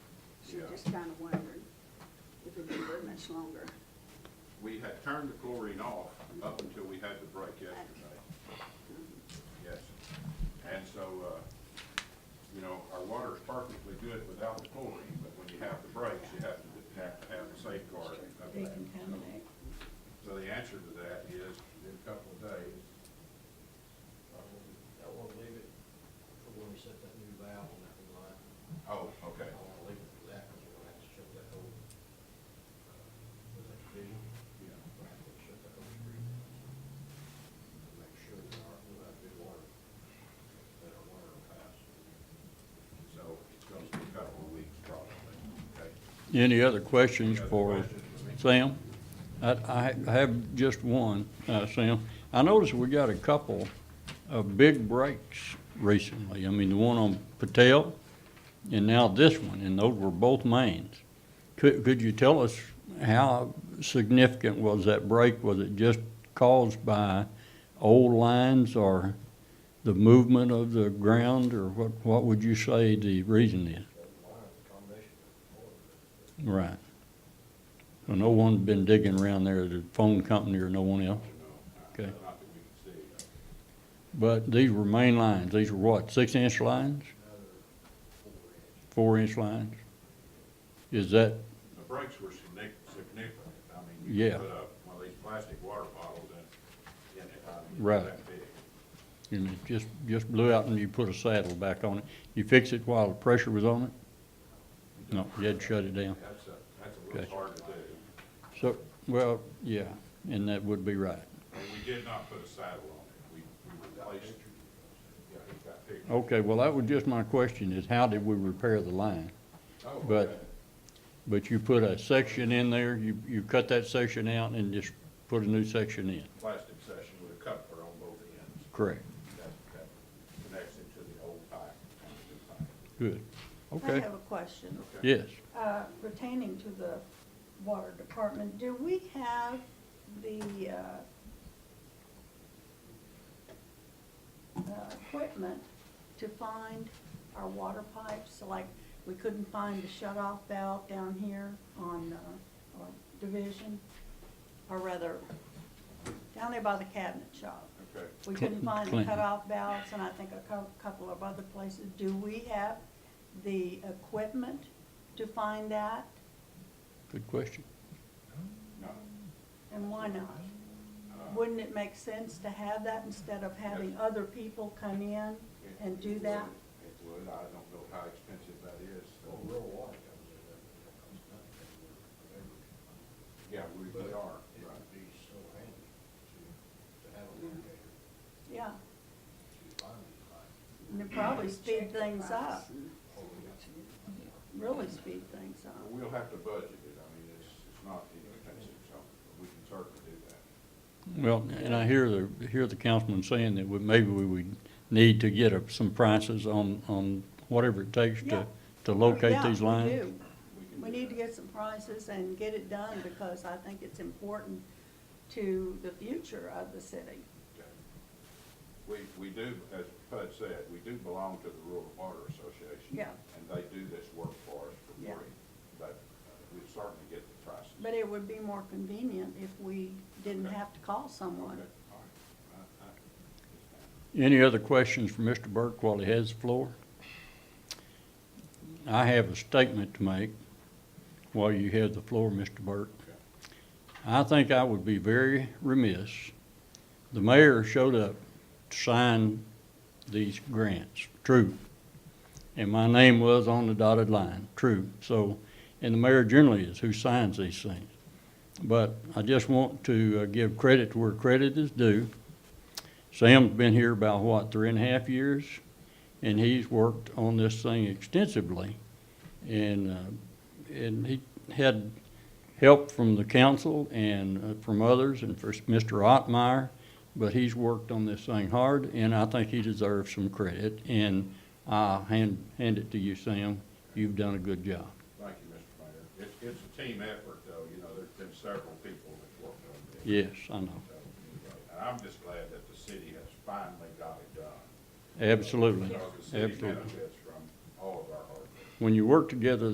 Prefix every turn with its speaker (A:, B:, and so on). A: We're
B: Yeah.
A: just kind of wondering if it'd be very much longer.
B: We had turned the chlorine off up until we had the break yesterday, yes. And so, uh, you know, our water's perfectly good without the chlorine, but when you have the breaks, you have to, have to have a safeguard of that.
C: Decontaminate.
B: So the answer to that is, in a couple of days,
D: I want to leave it for when we set that new valve on that new line.
B: oh, okay,
D: I want to leave it for that, because we're going to have to shut that whole, uh, was that division?
B: Yeah.
D: We're going to have to shut that whole street down. To make sure that our, we have good water, that our water will pass.
B: so it's gonna be a couple of weeks probably, okay?
E: Any other questions
B: Any other questions for me?
E: for Sam? I, I ha- have just one, uh, Sam. I noticed we got a couple of big breaks recently. I mean, the one on Patel and now this one, and those were both mains. Could, could you tell us how significant was that break? Was it just caused by old lines or the movement of the ground, or what, what would you say the reason is?
D: That line, the combination of the water.
E: Right. So no one's been digging around there, the phone company or no one else?
B: No,
E: Okay.
B: Not that we can see.
E: But these were main lines, these were what, six-inch lines, four-inch lines? Is that,
B: The brakes were significant, significant. I mean, you
E: Yeah.
B: could put up one of these plastic water bottles in, in it, I mean,
E: Right.
B: that big.
E: you know, just, just blew out and you put a saddle back on it? You fix it while the pressure was on it? No, you had to shut it down.
B: That's a, that's a little
E: Gotcha.
B: hard to do.
E: So, well, yeah, and that would be right.
B: And we did not put a saddle on it. We, we replaced, yeah, it got big.
E: Okay, well, that was just my question, is how did we repair the line?
B: Oh,
E: but-
B: okay.
E: But you put a section in there, you, you cut that section out and just put a new section in,
B: Plastic section with a coupler on both ends.
E: correct?
B: That, that connects it to the old pipe. and the new pipe.
E: Good,
C: I
E: okay,
C: have a question.
B: Okay.
E: yes.
C: Uh, Pertaining to the water department, do we have the uh, uh, equipment to find our water pipes? Like, we couldn't find the shut-off valve down here on uh, our Division, or rather, down there by the cabinet shop.
B: Okay.
C: We couldn't find the
E: Clinton.
C: cutoff valves, and I think a cou- couple of other places. Do we have the equipment to find that,
E: Good question.
B: No,
C: and why not?
B: uh,
C: Wouldn't it make sense to have that instead of having other people come in
B: it-
C: and
B: it
C: do
B: would-
C: that?
B: It would. I don't know how expensive that is.
D: Well, Oh, real water comes in, that, that comes down, that we're,
B: Yeah, we, we are,
D: It
B: right.
D: would be so handy to, to have a locator
C: Yeah,
D: to find these lines.
C: and it'd probably speed things up,
D: Oh, we got to-
C: really speed things
B: Uh,
C: up.
B: We'll have to budget it, I mean, it's, it's not inexpensive, so we can certainly do that.
E: Well, and I hear the, hear the councilman saying that we, maybe we would need to get a- some prices on, on whatever it takes
C: Yeah.
E: to, to locate
C: Yeah,
E: these
C: we
E: lines.
C: do.
B: We can
C: We
B: do
C: need to
B: that.
C: get some prices and get it done, because I think it's important to the future of the city.
B: Okay. We, we do, as Bud said, we do belong to the Rural Water Association.
C: Yeah.
B: And they do this work for us for
C: Yeah.
B: free, but uh, we certainly get the prices.
C: But it would be more convenient if we didn't
B: Okay.
C: have to call
B: Okay, all
C: someone.
B: right. I- I understand.
E: Any other questions for Mr. Burke while he has the floor? I have a statement to make while you have the floor, Mr. Burke.
B: Okay.
E: I think I would be very remiss. The mayor showed up to sign these grants, true. And my name was on the dotted line, true. So, and the mayor generally is who signs these things. But I just want to uh, give credit where credit is due. Sam's been here about, what, three and a half years? And he's worked on this thing extensively. And, uh, and he had help from the council and uh, from others and for Mr. Ottmeyer, but he's worked on this thing hard, and I think he deserves some credit. And I'll hand, hand it to you, Sam. You've done a good job.
B: Thank you, Mr. Mayor. It's, it's a team effort, though, you know, there's been several people that worked on this.
E: Yes, I know.
B: So, anyway, And I'm just glad that the city has finally got it done.
E: Absolutely,
B: Because the city
E: absolutely.
B: benefits from all of our hard work.
E: When you work together,